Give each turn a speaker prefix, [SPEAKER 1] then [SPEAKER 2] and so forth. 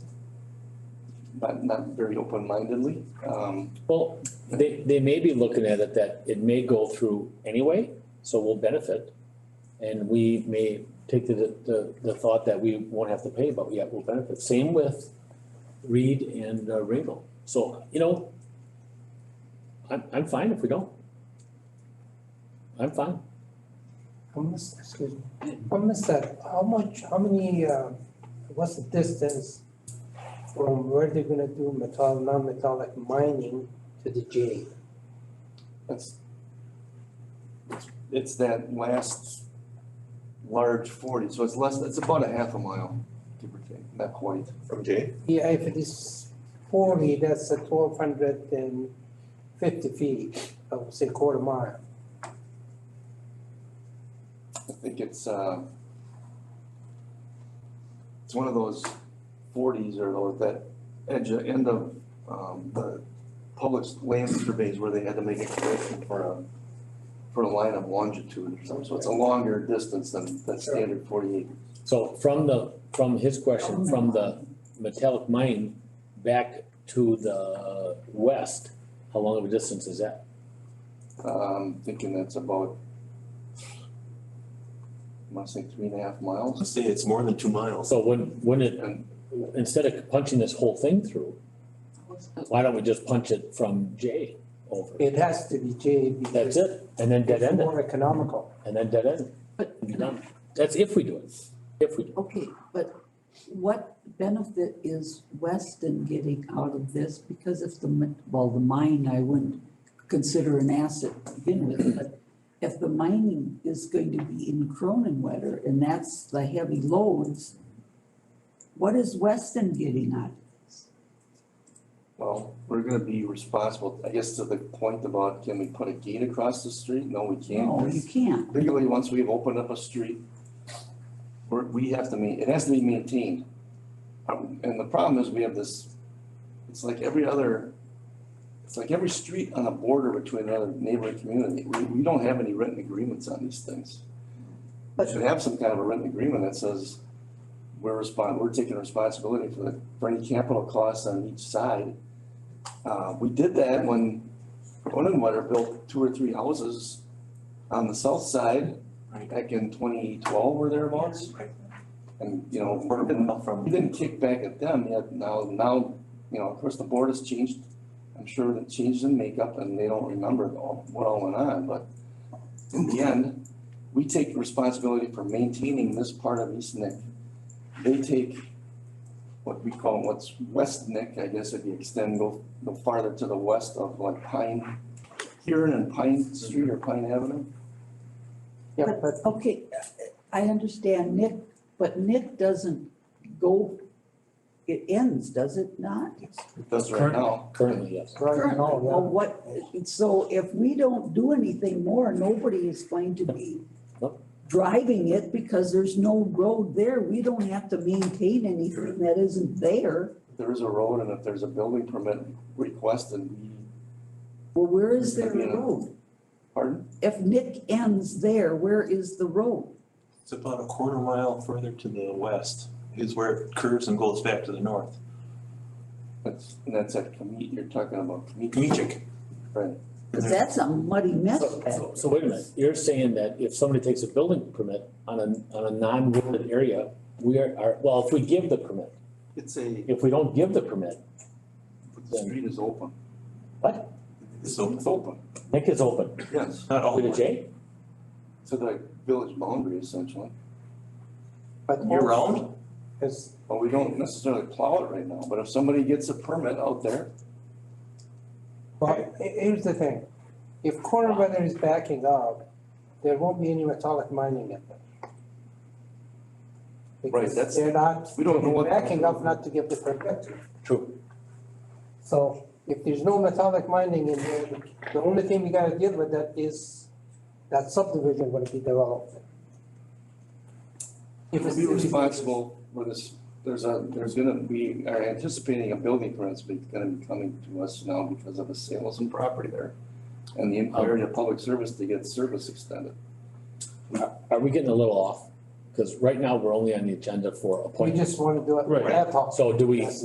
[SPEAKER 1] not, not very open-mindedly. Um,
[SPEAKER 2] Well, they, they may be looking at it that it may go through anyway, so we'll benefit. And we may take the, the, the thought that we won't have to pay, but yet we'll benefit. Same with Reed and uh, Ringel. So, you know, I'm, I'm fine if we don't. I'm fine.
[SPEAKER 3] How much, excuse me, how much that, how much, how many, uh, what's the distance from where they're gonna do metal, non-metallic mining to the jetty?
[SPEAKER 1] That's, it's- it's that last large forty, so it's less, it's about a half a mile, give or take, not quite.
[SPEAKER 4] From Jay?
[SPEAKER 3] Yeah, if it is forty, that's a twelve hundred and fifty feet, I would say quarter mile.
[SPEAKER 1] I think it's, uh, it's one of those forties or those, that edge, of- end of, um, the public land surveys where they had to make a correction for a, for a line of longitude or something, so it's a longer distance than, than standard forty-eight.
[SPEAKER 2] So from the, from his question, from the metallic mine back to the west, how long of a distance is that?
[SPEAKER 1] Um, thinking that's about, I must say three and a half miles.
[SPEAKER 4] Let's say it's more than two miles.
[SPEAKER 2] So wouldn't, wouldn't it
[SPEAKER 1] And
[SPEAKER 2] instead of punching this whole thing through, why don't we just punch it from J over?
[SPEAKER 3] It has to be jetty because.
[SPEAKER 2] That's it, and then dead
[SPEAKER 3] it's
[SPEAKER 2] end it,
[SPEAKER 3] More economical.
[SPEAKER 2] and then dead end
[SPEAKER 5] But,
[SPEAKER 2] it, be done. That's if we do it, if we do.
[SPEAKER 5] okay, but what benefit is Weston getting out of this? Because if the, mi- well, the mine, I wouldn't consider an asset to begin with, but if the mining is going to be in Croninwetter and that's the heavy loads, what is Weston getting out of this?
[SPEAKER 1] Well, we're gonna be responsible, I guess to the point about can we put a gate across the street? No, we can't.
[SPEAKER 5] No, you can't.
[SPEAKER 1] Legally, once we've opened up a street, we're, we have to meet, it has to be maintained. Um, And the problem is we have this, it's like every other, it's like every street on a border between another neighboring community. We, we don't have any written agreements on these things. We
[SPEAKER 5] But-
[SPEAKER 1] should have some kind of a written agreement that says we're respond, we're taking responsibility for the, for any capital costs on each side. Uh, we did that when Onenwetter built two or three houses on the south side,
[SPEAKER 4] Right.
[SPEAKER 1] back in twenty twelve or thereabouts.
[SPEAKER 4] Right.
[SPEAKER 1] And, you know,
[SPEAKER 4] Quarter
[SPEAKER 1] we didn't,
[SPEAKER 4] mile from.
[SPEAKER 1] we didn't kick back at them yet, now, now, you know, of course, the board has changed. I'm sure it changed in makeup and they don't remember it all, what all went on, but in the end, we take responsibility for maintaining this part of East Nick. They take what we call, what's West Nick, I guess if you extend, go, go farther to the west of like Pine, Huron and Pine Street or Pine Avenue.
[SPEAKER 3] Yeah, but
[SPEAKER 5] Okay, I understand Nick, but Nick doesn't go, it ends, does it not?
[SPEAKER 1] It does right
[SPEAKER 2] Currently-
[SPEAKER 1] now.
[SPEAKER 2] Currently, yes.
[SPEAKER 3] right now, yeah.
[SPEAKER 5] Well, what, so if we don't do anything more, nobody is going to be
[SPEAKER 2] Nope.
[SPEAKER 5] driving it because there's no road there. We don't have to maintain anything that isn't there.
[SPEAKER 1] If There is a road and if there's a building permit requested, we,
[SPEAKER 5] Well, where is there
[SPEAKER 1] Yeah.
[SPEAKER 5] a road?
[SPEAKER 1] pardon?
[SPEAKER 5] If Nick ends there, where is the road?
[SPEAKER 4] It's about a quarter mile further to the west is where it curves and goes back to the north.
[SPEAKER 1] That's, and that's at Comet, you're talking about Comet.
[SPEAKER 4] Comedic.
[SPEAKER 1] Right.
[SPEAKER 5] Because that's a muddy mess
[SPEAKER 2] So,
[SPEAKER 5] back
[SPEAKER 2] so- so wait a minute, you're saying that if somebody takes a building permit on a, on a non-wooded area, we are, are, well, if we give the permit,
[SPEAKER 1] It's a,
[SPEAKER 2] if we don't give the permit,
[SPEAKER 1] the street is open.
[SPEAKER 2] what?
[SPEAKER 4] It's open.
[SPEAKER 1] It's open,
[SPEAKER 2] Nick is open,
[SPEAKER 1] yes,
[SPEAKER 4] Not all.
[SPEAKER 2] to the J?
[SPEAKER 1] to the village boundary essentially.
[SPEAKER 3] But
[SPEAKER 4] Year
[SPEAKER 3] also,
[SPEAKER 4] round?
[SPEAKER 3] It's,
[SPEAKER 1] But we don't necessarily plow it right now, but if somebody gets a permit out there,
[SPEAKER 3] Well, he- here's the thing, if corner weather is backing up, there won't be any metallic mining at that. Because
[SPEAKER 1] that's-
[SPEAKER 3] They're not,
[SPEAKER 1] we don't know
[SPEAKER 3] they're
[SPEAKER 1] what-
[SPEAKER 3] backing up not to give the permit.
[SPEAKER 2] True.
[SPEAKER 3] So if there's no metallic mining in there, the only thing we gotta deal with that is that subdivision will be developed. If
[SPEAKER 1] we'll
[SPEAKER 3] it's
[SPEAKER 1] be responsible for this, there's a, there's gonna, we are anticipating a building permit's be- gonna be coming to us now because of the sale of some property there. And the inquiry of public service to get service extended.
[SPEAKER 2] Are we getting a little off? Cause right now, we're only on the agenda for
[SPEAKER 3] We
[SPEAKER 2] appointments.
[SPEAKER 3] just wanna do it
[SPEAKER 2] Right.
[SPEAKER 3] ad hoc.
[SPEAKER 2] So do we,